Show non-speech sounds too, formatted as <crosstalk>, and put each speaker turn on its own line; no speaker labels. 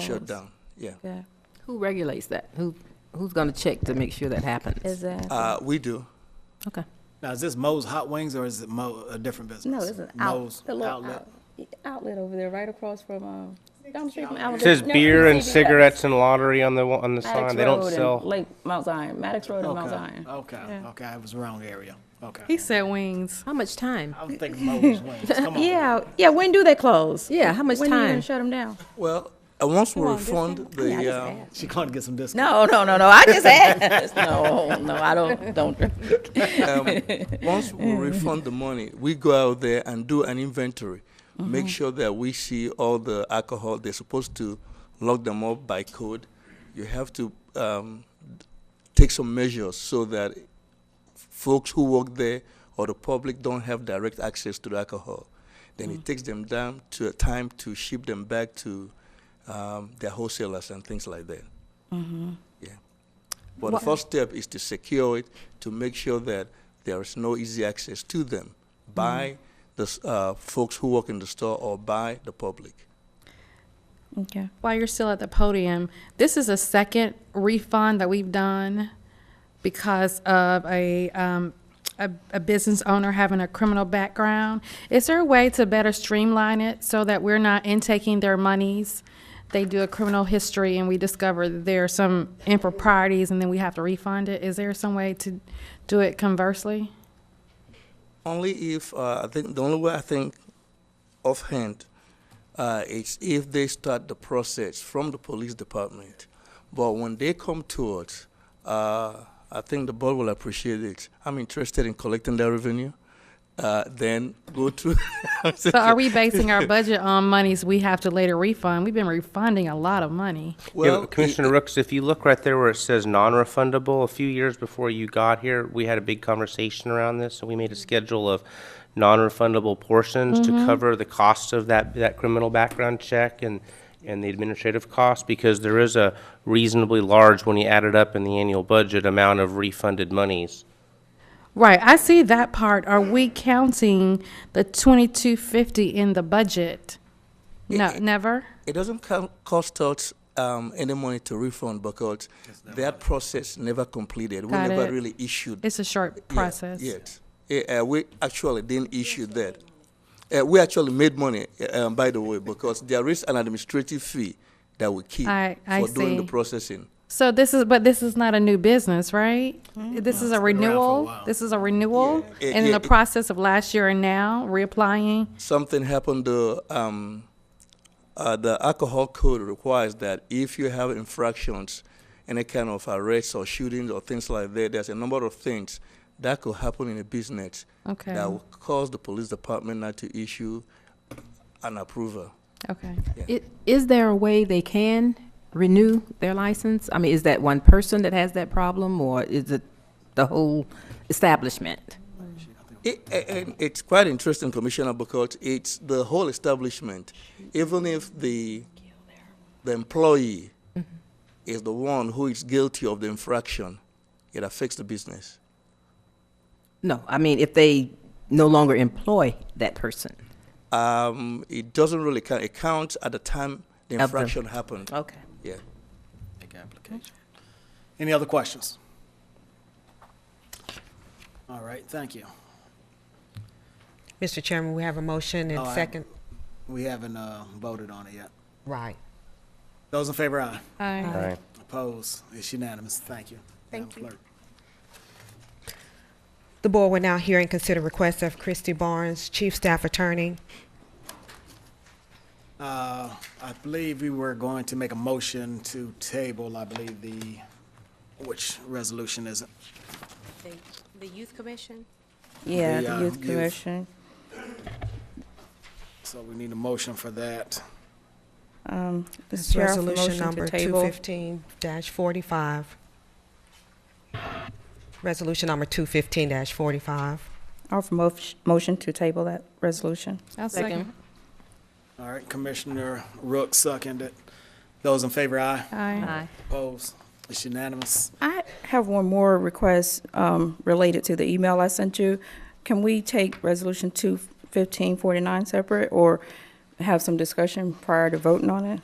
shut down, yeah.
Okay,
Who regulates that? Who, who's gonna check to make sure that happens?
exactly.
Uh, we do.
Okay.
Now, is this Mo's Hot Wings or is it Mo, a different business?
No, it's an out,
Mo's
the little
outlet.
out- outlet over there, right across from, um, down the street from Alabama.
It says beer and cigarettes and lottery on the, wa- on the sign. They don't sell.
Lake Mount Zion, Maddox Road and Mount
Okay,
Zion.
Oh, okay, okay, I was wrong area, okay.
He said wings.
How much time?
I was
<laughs>
thinking Mo's Wings, come on.
Yeah, yeah, when do they close?
Yeah, how much
When are you
time?
gonna shut them <laughs> down?
Well, uh, once we refund the, uh,
She going to get some discount.
No, Oh, no, no, no, I just asked. No, no, I don't, don't drink.
Um, once we refund the money, we go out there and do an inventory, make sure that we see all the alcohol. They're supposed to lock them up by code. You have to um, take some measures so that folks who work there or the public don't have direct access to the alcohol. Then it takes them down to a time to ship them back to um, their wholesalers and things like that. Yeah. But the first step is to secure it, to make sure that there is no easy access to them by the s- uh, folks who work in the store or by the public.
Okay.
While you're still at the podium, this is a second refund that we've done because of a, um, a, a business owner having a criminal background. Is there a way to better streamline it so that we're not intaking their monies? They do a criminal history and we discover that there are some improprieties and then we have to refund it. Is there some way to do it conversely?
Only if, uh, I think, the only way I think offhand uh, is if they start the process from the police department. But when they come to us, uh, I think the board will appreciate it. I'm interested in collecting their revenue. Uh, then go to. <laughs>
So are we basing our budget on monies we have to later refund? We've been refunding a lot of money.
Yeah,
Well,
but Commissioner Rooks, if you look right there where it says non-refundable, a few years before you got here, we had a big conversation around this, and we made a schedule of non-refundable portions to cover the cost of that, that criminal background check and, and the administrative cost, because there is a reasonably large, when you add it up in the annual budget, amount of refunded monies.
Right, I see that part. Are we counting the twenty-two fifty in the budget? No, never?
It doesn't co- cost us um, any money to refund because that process never completed. We
Got
never
it.
really issued
It's a short
yet-
process.
Yet, Eh, uh, we actually didn't issue that. Uh, we actually made money, eh, um, by the way, because there is an administrative fee that we keep
I- I
for doing the
see.
processing.
So this is, but this is not a new business, right? This is
Mm-hmm. been
a
around for a
renewal?
while.
This is a renewal?
Yeah.
And in
Yeah,
the
it-
process of last year and now, reapplying?
something happened to um, uh, the alcohol code requires that if you have infractions, any kind of arrests or shootings or things like that, there's a number of things that could happen in a business
Okay.
that will cause the police department not to issue an approval.
Okay.
I- Is there a way they can renew their license? I mean, is that one person that has that problem, or is it the whole establishment?
It, a- and it's quite interesting, Commissioner, because it's the whole establishment. Even if the the employee is the one who is guilty of the infraction, it affects the business.
No, I mean, if they no longer employ that person.
Um, it doesn't really count. It counts at the time the
Of the-
infraction happened.
Okay.
Yeah.
Make application. Any other questions? All right, thank you.
Mr. Chairman, we have a motion
Oh,
and
I-
second.
We haven't uh, voted on it yet.
Right.
Those in favor, aye.
Aye.
Right.
Opposed, it's unanimous, thank you. Thank you.
The board will now hear and consider requests of Christy Barnes, Chief Staff Attorney.
Uh, I believe we were going to make a motion to table, I believe, the, which resolution is it?
The youth commission?
Yeah,
the, uh,
the youth
youth.
commission.
So we need a motion for that.
Um, Mr.
It's
Chair, I offer
resolution
motion
number
to table.
215-45. Resolution number 215-45.
I offer mo- motion to table that resolution.
I'll second.
All right, Commissioner Rook seconded. Those in favor, aye.
Aye.
Opposed, it's unanimous.
I have one more request um, related to the email I sent you. Can we take Resolution 21549 separate or have some discussion prior to voting on it?